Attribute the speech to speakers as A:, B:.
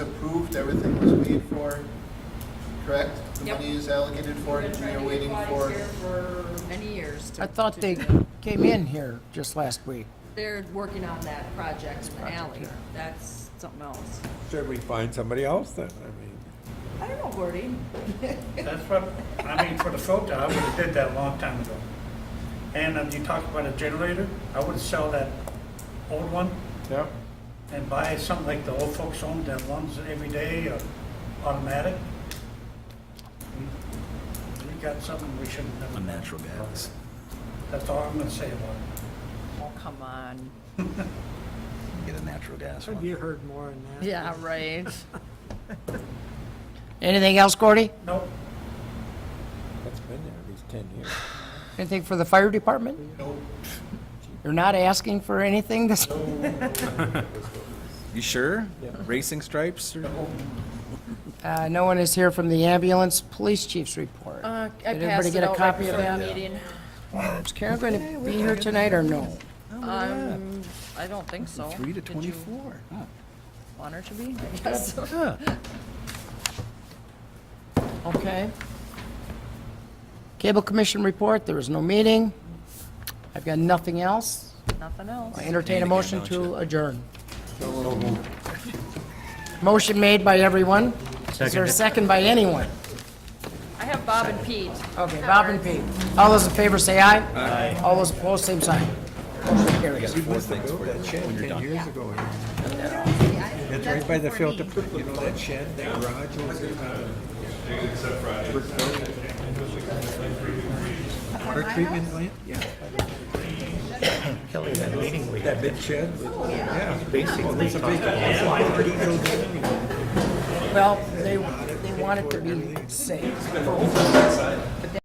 A: everything was paid for, correct? The
B: Yep.
A: money is allocated for it, and you're waiting for,
B: Here for many years. to-
C: I thought they came in here just last week.
B: They're working on that project in the alley. That's something else.
D: Should we find somebody else then? I mean,
B: I don't know, Gordy.
E: That's what, I mean, for the filter, I would've did that a long time ago. And um, you talked about a generator, I would sell that old one
D: yeah,
E: and buy something like the old folks home that runs every day, or automatic. We- We got something we shouldn't have.
F: on natural gas.
E: That's all I'm gonna say about it.
B: Oh, come on.
F: Get a natural gas
G: Have
F: one.
G: you heard more on that?
B: Yeah, right.
C: Anything else, Gordy?
E: Nope,
D: that's been there at least ten years.
C: Anything for the fire department?
E: nope,
C: You're not asking for anything this,
F: You sure? Racing stripes or?
E: nope.
C: uh, no one is here from the ambulance police chief's report.
B: Uh, I
C: Did
B: passed
C: everybody
B: it
C: get a
B: out right
C: copy of
B: before the
C: that?
B: meeting.
C: Is Karen going to be here tonight or no?
B: Um, I don't think so.
F: Three to
B: Did you
F: twenty-four. Huh.
B: Want her to be? I guess.
F: Huh.
C: Okay. Cable Commission report, there was no meeting. I've got nothing else.
B: Nothing else.
C: I entertain a
F: Again,
C: motion
F: don't
C: to
F: you?
C: adjourn. Motion made by everyone. Is there a second by anyone?
B: I have Bob and Pete.
C: Okay, Bob and Pete. All those in favor say aye. Aye. All those opposed, same sign. Motion carries.
F: Four things for you.
D: Ten years ago. here. It's right by the filter, plant. you know, that shed, that garage over there. Water treatment plant? Yeah. Kelly, that meeting we That big shed? with- Yeah. Basically. It's a big, it's a pretty little building.
C: Well, they, they want it to be safe.